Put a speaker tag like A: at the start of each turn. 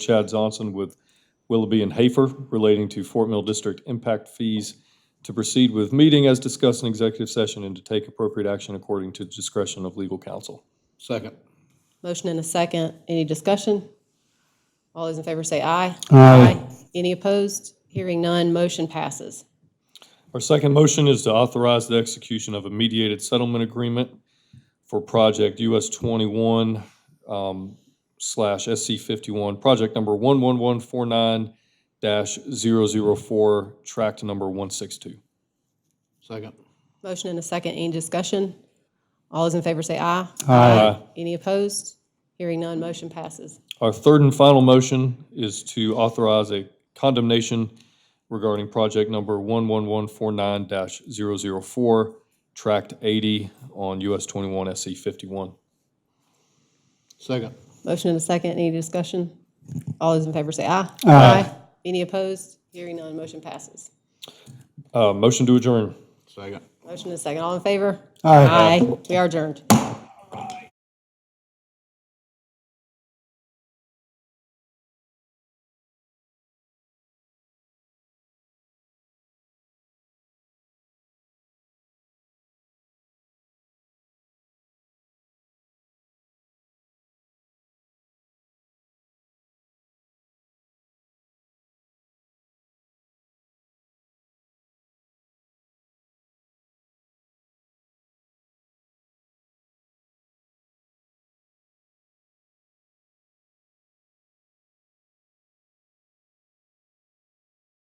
A: Chad Johnson with Willoughby and Hafer relating to Fort Mill District impact fees to proceed with meeting as discussed in executive session and to take appropriate action according to discretion of legal counsel.
B: Second.
C: Motion and a second. Any discussion? All those in favor say aye.
B: Aye.
C: Any opposed? Hearing none, motion passes.
A: Our second motion is to authorize the execution of a mediated settlement agreement for project US twenty-one um, slash SC fifty-one, project number one-one-one-four-nine dash zero-zero-four, tract number one-six-two.
B: Second.
C: Motion and a second. Any discussion? All those in favor say aye.
A: Aye.
C: Any opposed? Hearing none, motion passes.
A: Our third and final motion is to authorize a condemnation regarding project number 11149-004, tract 80 on US 21 SC 51.
B: Second.
C: Motion and a second. Any discussion? All those in favor say aye. Aye. Any opposed? Hearing none, motion passes.
A: Uh, Motion to adjourn.
B: Second.
C: Motion and a second. All in favor? Aye. We are adjourned.